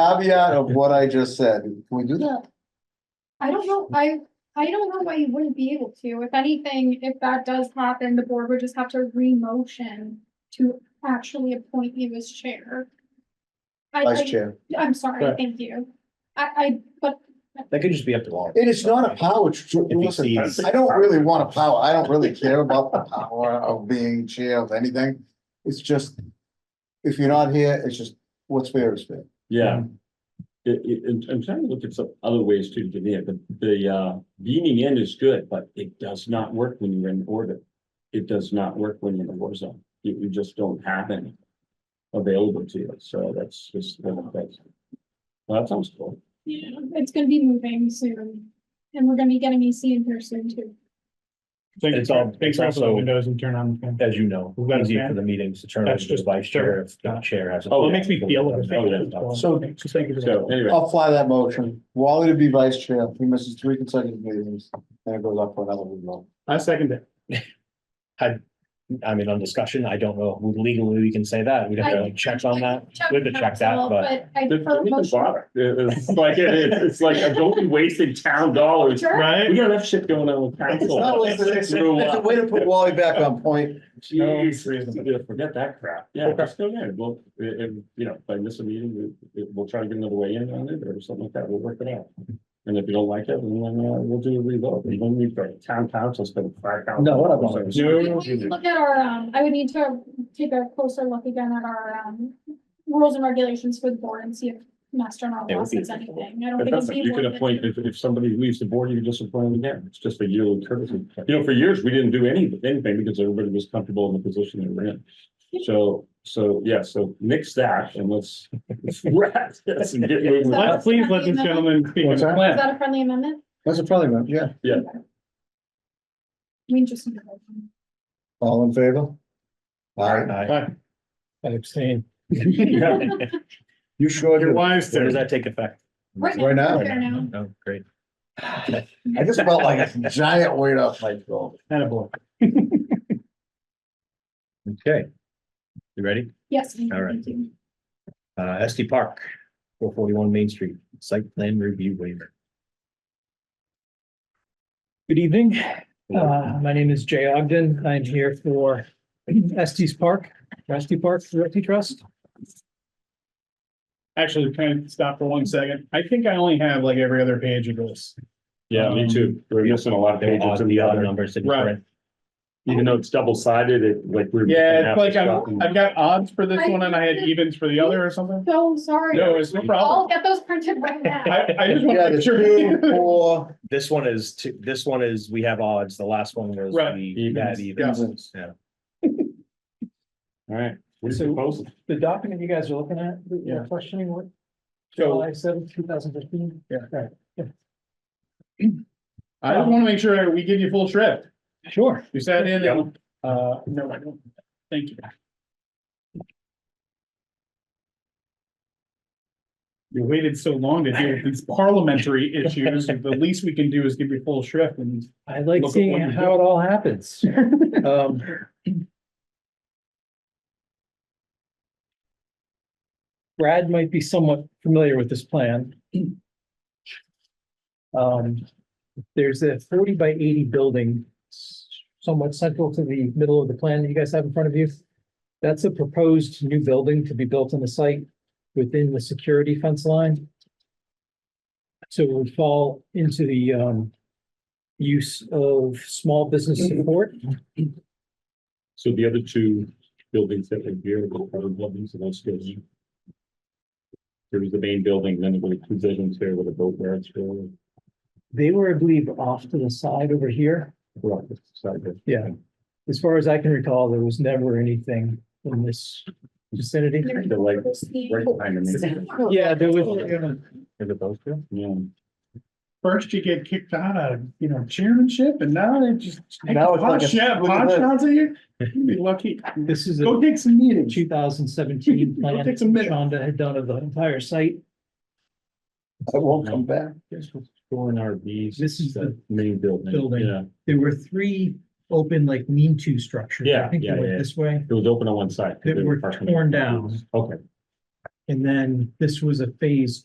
caveat of what I just said, can we do that? I don't know, I, I don't know why you wouldn't be able to. If anything, if that does happen, the board would just have to re-motion to actually appoint you as chair. I, Vice I, Chair. I'm sorry, Correct. thank you. I, I, but That could just be up to all. It is not a power, tr- tr- he listen, sees- I don't really want a power, I don't really care about the power of being chair of anything. It's just, if you're not here, it's just, what's fair is fair. Yeah. Mm. It, it, and I'm trying to look at some other ways to do it, the, the, uh, beaming in is good, but it does not work when you're in orbit. It does not work when you're in a war zone. You, you just don't have any available to you, so that's just. one of the things. Well, that sounds cool. you know, it's gonna be moving soon. And we're gonna be getting EC in here soon too. It's all- Thanks for also- the windows and turn on the fan. As you know, We've got a easy for fan. the meetings to turn over That's to the just- vice chair if the chair has. Well, it makes me feel. like a Oh, yeah. fan. So, so thank you. for So that. anyway, I'll fly that motion. Wally to be vice chair, he misses three consecutive meetings, and it goes up for another one. I second it. I mean, on discussion, I don't know who legally we can say that. We'd have to check on that. We have to check that, but I don't prefer even motion. bother. It- It's like, it- it's, it's like, uh, don't be wasting town dollars. Sure. We Right? got enough shit going on with It's not council. like the next- It's a way to put Wally back on point. Jeez, forget that crap. Yeah, Okay. just go there. Well, i- if, you know, if I miss a meeting, we- we- we'll try to get another way in on it or something like that. We'll work it out. And if you don't like it, then uh, we'll do a revote. You don't need the town council spend five thousand. No, what about it? We would Look at our, um, I would need to take a closer look again at our, um, rules and regulations for the board and see if Master Law It would be- says anything. I don't It think it'd doesn't, be you can worth it. appoint, if, if somebody leaves the board, you can just appoint them again. It's just a yearly courtesy. You know, for years, we didn't do any, anything because everybody was comfortable in the position they were in. So, so, yeah, so mix that and let's let's wrap this and get moving. Let- Please let this gentleman speak. What's that? Is that a friendly amendment? That's a probably, vote, yeah. We just. need a motion. All in favor? All right, Aye. Aye. I abstain. you sure? You're do. wise When does there. that take effect? Right now. Fair now. Oh, great. I just felt like a giant weight off my throat. Attaboy. Okay. You ready? Yes. All right. thank you. Uh, SD Park, four forty-one Main Street, site plan review waiver. Good evening. Uh, my name is Jay Ogden. I'm here for Estes Park, Estes Park Realty Trust. Actually, kind of stop for one second. I think I only have like every other page of this. Um, Yeah, me too. We're missing a lot of They pages odd- in The the odd other, numbers. that Right. different. even though it's double sided, it like we're. Yeah, it's like I'm, I've got odds for this I- one and I had evens for the other or something. So sorry. No, it's no I'll problem. get those printed right now. I, I just want Yeah, to the make sure. two, four, This one is, two- this one is, we have odds. The last one was. Right. we- we had Evens. evens. Yeah. All right, what is it proposing? The document you guys are looking at, that Yeah. you're questioning what? So- July seventh, two thousand fifteen? Yeah. I just want to make sure we give you full shrift. Sure. You sat in and, uh, no, I don't. Thank you. You waited so long to deal with these parliamentary issues. The least we can do is give you full shrift and I like Look at seeing what you how it all happens. Um, Brad might be somewhat familiar with this plan. Um, there's a forty by eighty building somewhat central to the middle of the plan that you guys have in front of you. That's a proposed new building to be built on the site within the security fence line. So it would fall into the, um, use of small business support. So the other two buildings that are here, the other buildings and those skills. There was the main building, then there were two buildings here with a boat yard. They were, I believe, off to the side over here. Yeah. As far as I can recall, there was never anything in this vicinity. They're like right behind me. Yeah, there was, Is it those two? Yeah. first you get kicked out of, you know, chairmanship and now they just. Now it's like Hot a- shot, look at hot this. shots at you. You'd be lucky. this is Go a take some meetings. two thousand seventeen plan Take some minutes. Shonda had done of the entire site. I won't come back. Guess what's going RVs. This is the Main building. building. Yeah, There were three open like mean-to structures. Yeah, I think yeah, they yeah. went this way. it was open on one side. 'cause That they were parking torn in- down. Okay. And then this was a phase